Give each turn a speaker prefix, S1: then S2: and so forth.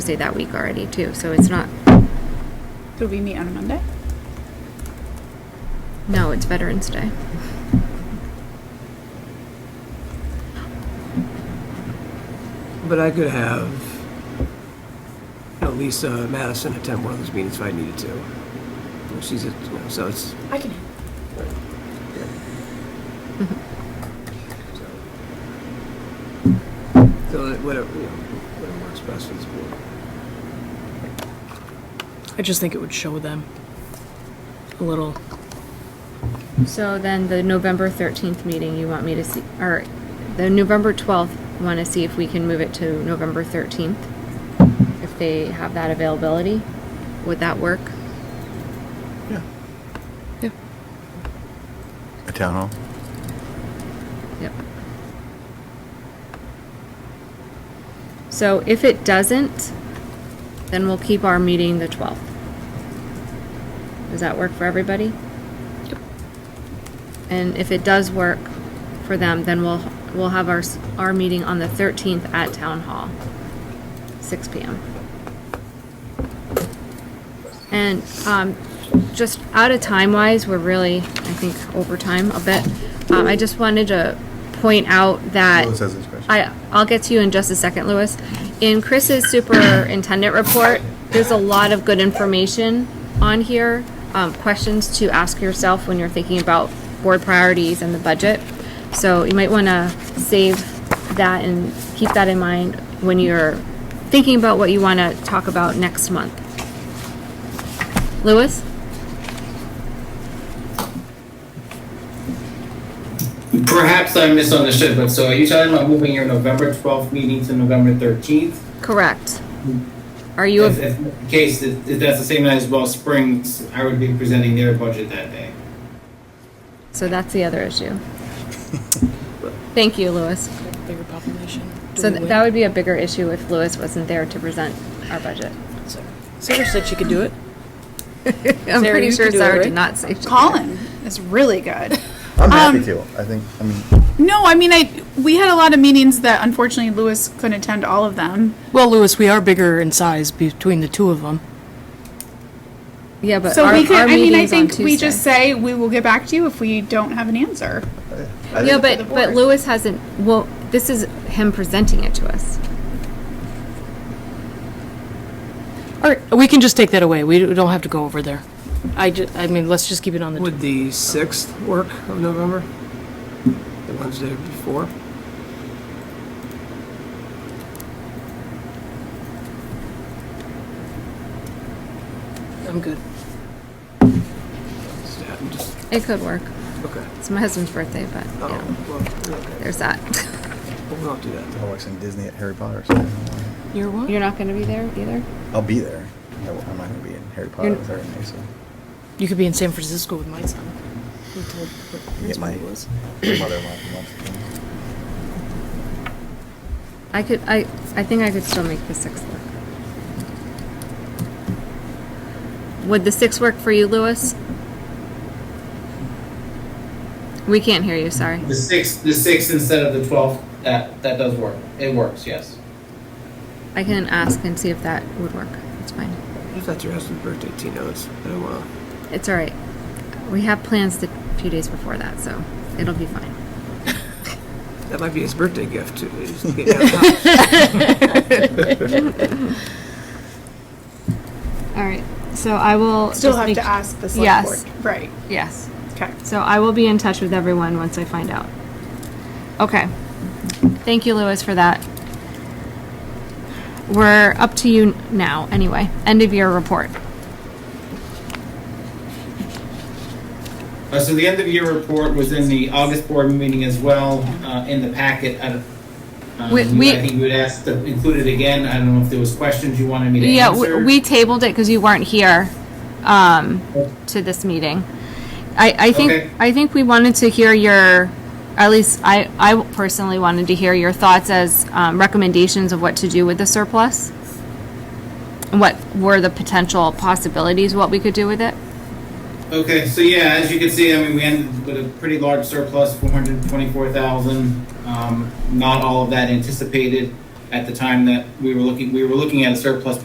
S1: Tuesday that week already too, so it's not,
S2: Do we meet on a Monday?
S1: no, it's Veterans Day.
S3: But I could have, you know, Lisa Madison attend one of those meetings if I needed to. You know, She's, a- you know, so it's,
S2: I can.
S3: so. So that whatever, you know, whatever works best for this board.
S4: I just think it would show them a little.
S1: So then the November 13th meeting, you want me to see, or the November 12th, want to see if we can move it to November 13th? If they have that availability? Would that work?
S5: Yeah.
S4: Yeah.
S5: A town hall?
S1: Yep. So if it doesn't, then we'll keep our meeting the 12th. Does that work for everybody?
S4: Yep.
S1: And if it does work for them, then we'll, we'll have our, s- our meeting on the 13th at Town Hall, 6 PM. And um, just out of time wise, we're really, I think, over time a bit. Um, I just wanted to point out that.
S5: Louis has his question.
S1: I, I'll get to you in just a second, Louis. In Chris's superintendent report, there's a lot of good information on here, um, questions to ask yourself when you're thinking about board priorities and the budget. So you might want to save that and keep that in mind when you're thinking about what you want to talk about next month. Louis?
S6: Perhaps I misunderstood, but so are you talking about moving your November 12th meeting to November 13th?
S1: Correct. Are you,
S6: If,
S1: a-
S6: if that's the case, if if that's the same night as Wells Springs, I would be presenting their budget that day.
S1: so that's the other issue. Thank you, Louis.
S4: Bigger population. Do
S1: So
S4: we
S1: th-
S4: wait?
S1: that would be a bigger issue if Lewis wasn't there to present our budget.
S4: Sarah said she could do it.
S1: I'm
S4: Sarah,
S1: pretty
S4: you
S1: sure
S4: can do it,
S1: Sarah did
S4: right?
S1: not say. she-
S2: Colin is really good.
S5: I'm
S4: Um,
S5: happy to. I think, I mean,
S2: No, I mean, I, we had a lot of meetings that unfortunately Lewis couldn't attend all of them.
S4: Well, Lewis, we are bigger in size between the two of them.
S1: Yeah, but
S2: So
S1: our,
S2: we could,
S1: our
S2: I mean, I
S1: meeting's on
S2: think we
S1: Tuesday.
S2: just say, we will get back to you if we don't have an answer.
S5: I
S1: Yeah,
S5: think-
S1: but, but Lewis hasn't, well, this is him presenting it to us.
S4: All right, we can just take that away. We don't have to go over there. I ju- I mean, let's just keep it on the.
S3: Would the 6th work of November? The Wednesday before?
S4: I'm good.
S3: Yeah, I'm just-
S1: It could work.
S3: Okay.
S1: It's my husband's birthday, but,
S3: Oh,
S1: yeah,
S3: well, okay.
S1: there's that.
S3: We'll not do that.
S5: They're watching Disney at Harry Potter. So I don't know why.
S4: You're what?
S1: You're not gonna be there either?
S5: I'll be there. I w- I'm not going to be in Harry Potter
S1: You're-
S5: with her and Mason.
S4: You could be in San Francisco with my son. We told-
S5: Get
S4: that's
S5: my
S4: what it was.
S5: mother-in-law. to watch the game.
S1: I could, I, I think I could still make the sixth work. Would the sixth work for you, Lewis? We can't hear you, sorry.
S6: The 6th, the 6th instead of the 12th, that, that does work. It works, yes.
S1: I can ask and see if that would work. It's fine.
S3: If that's your husband's birthday, Tino, it's, I don't want
S1: It's all right. We have plans the few days before that, so it'll be fine.
S3: to, that might be his birthday gift to, is to get out of the house.
S1: All right. So I will
S2: Still
S1: just
S2: have
S1: make-
S2: to ask the select
S1: Yes.
S2: board. Right,
S1: Yes.
S2: okay.
S1: So I will be in touch with everyone once I find out. Okay. Thank you, Lewis, for that. We're up to you now, anyway. End of year report.
S6: Uh, so the end of year report was in the August board meeting as well, uh, in the packet. I don't- um,
S1: We-
S6: you-
S1: we-
S6: I think you would ask to include it again. I don't know if there was questions you wanted me to
S1: Yeah,
S6: answer.
S1: we, we tabled it because you weren't here, um, to this meeting. I, I
S6: Okay.
S1: think, I think we wanted to hear your, at least I, I personally wanted to hear your thoughts as, um, recommendations of what to do with the surplus. And what were the potential possibilities, what we could do with it?
S6: Okay, so yeah, as you can see, I mean, we ended with a pretty large surplus, four hundred twenty-four thousand. Um, not all of that anticipated. at the time that we were looking, we were looking at a surplus